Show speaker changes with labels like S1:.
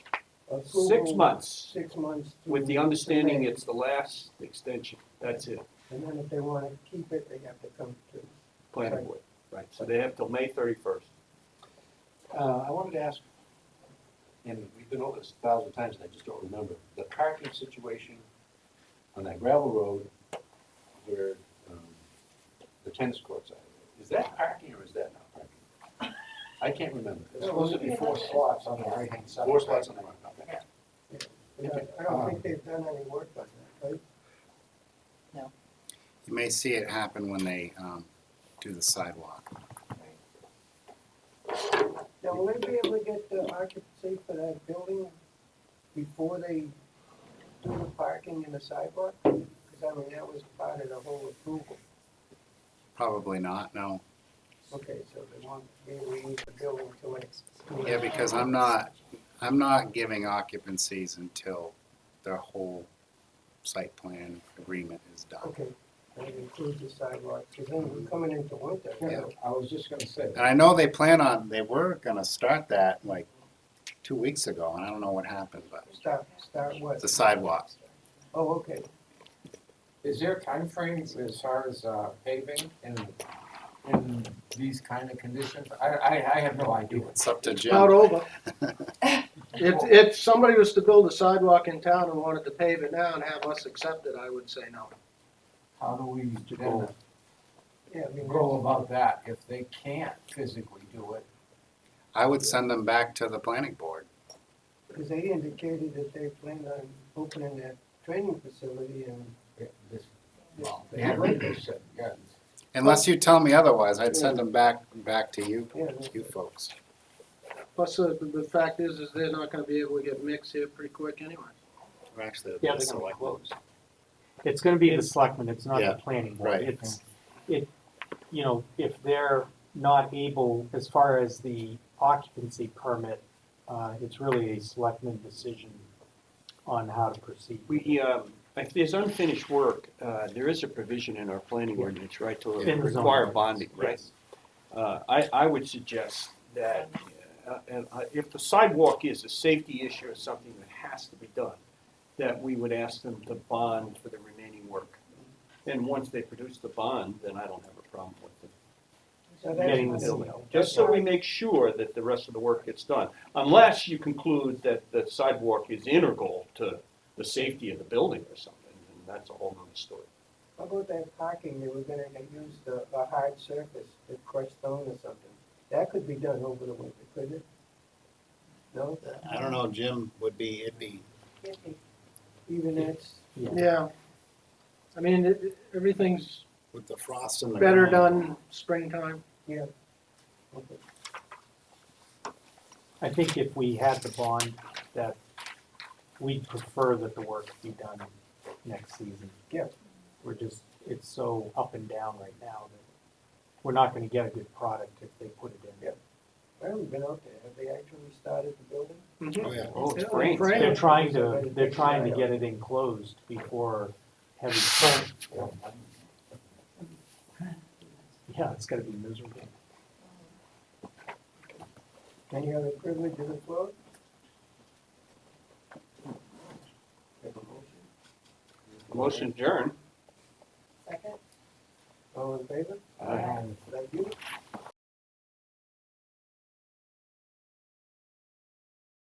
S1: Six
S2: approval,
S1: months,
S2: Six months. to-
S1: with the understanding
S2: to May.
S1: it's the last extension. That's it,
S2: And then if they want to keep it, they have to come to.
S1: planning board. Right, so they have till May thirty-first.
S3: Uh, I wanted to ask, and we've been over this a thousand times, and I just don't remember, the parking situation on that gravel road where, um, the tennis courts are, is that parking or is that not parking? I can't remember.
S4: There's supposed to be four slots on the right-hand side.
S3: Four slots on the right, okay.
S2: and I- I don't think they've done any work on that, right?
S5: You may see it happen when they um, do the sidewalk.
S2: Now, will they be able to get the occupancy for that building before they do the parking and the sidewalk? Because I mean, that was part of the whole approval.
S5: Probably not, no.
S2: Okay, so they want, they need the building to it.
S5: Yeah, because I'm not, I'm not giving occupancies until the whole site plan agreement is done.
S2: Okay, and it includes the sidewalk, because then we're coming into winter.
S5: Yeah.
S4: I was just gonna say,
S5: And I know they plan on, they were gonna start that like two weeks ago, and I don't know what happened, but
S2: Start, start what?
S5: the sidewalks.
S2: Oh, okay,
S4: is there a time frame as far as uh, paving in, in these kind of conditions? I, I, I have no idea.
S5: It's up to
S6: Not
S5: Jim.
S6: over. If, if somebody was to build a sidewalk in town and wanted to pave it now and have us accept it, I would say no.
S4: How do we then
S2: yeah, I mean.
S4: go about that if they can't physically do it?
S5: I would send them back to the planning board.
S2: Because they indicated that they planned on opening that training facility and
S4: It- this- Well, they haven't, they said, yes.
S5: Unless you tell me otherwise, I'd send them back, back to you,
S2: Yeah.
S5: you folks.
S6: Plus, uh, the, the fact is, is they're not gonna be able to get mixed here pretty quick anyway.
S5: Or Actually,
S7: Yeah,
S5: the
S7: they're gonna be
S5: select-
S7: closed. It's gonna be the selectmen, it's not
S5: Yeah,
S7: the planning board.
S5: right.
S7: It's, it, you know, if they're not able, as far as the occupancy permit, uh, it's really a selectmen decision on how to proceed.
S1: We, um, if there's unfinished work, uh, there is a provision in our planning ordinance, right, to
S7: In the zone.
S1: uh, require bonding, right?
S7: Yes.
S1: Uh, I, I would suggest that, uh, and I- if the sidewalk is a safety issue or something that has to be done, that we would ask them to bond for the remaining work. And once they produce the bond, then I don't have a problem with it.
S2: so that's.
S1: Getting the
S2: what-
S1: building, just so we make sure that the rest of the work gets done. Unless you conclude that the sidewalk is integral to the safety of the building or something, and that's a whole nother story.
S2: How about that parking, they were gonna use the, a hard surface, the crushed stone or something? That could be done over the winter, couldn't it? No,
S5: I don't know, Jim would be, it'd be
S2: even that's,
S6: Yeah. I mean, it- it, everything's
S5: with the frost in the
S6: better
S5: ground.
S6: done springtime.
S2: okay.
S7: I think if we had the bond, that we'd prefer that the work be done next season.
S2: Yeah.
S7: We're just, it's so up and down right now that we're not gonna get a good product if they put it in.
S2: Yeah. I haven't been out there, have they actually started the building?
S5: Oh, yeah.
S1: Oh, it's
S6: Yeah,
S1: great.
S6: great.
S7: They're trying to, they're trying to get it enclosed before heavy storm. Yeah, it's gonna be miserable.
S2: Any other privilege of the floor? Have a motion?
S1: Motion adjourned.
S2: All in favor?
S4: And
S2: Thank you.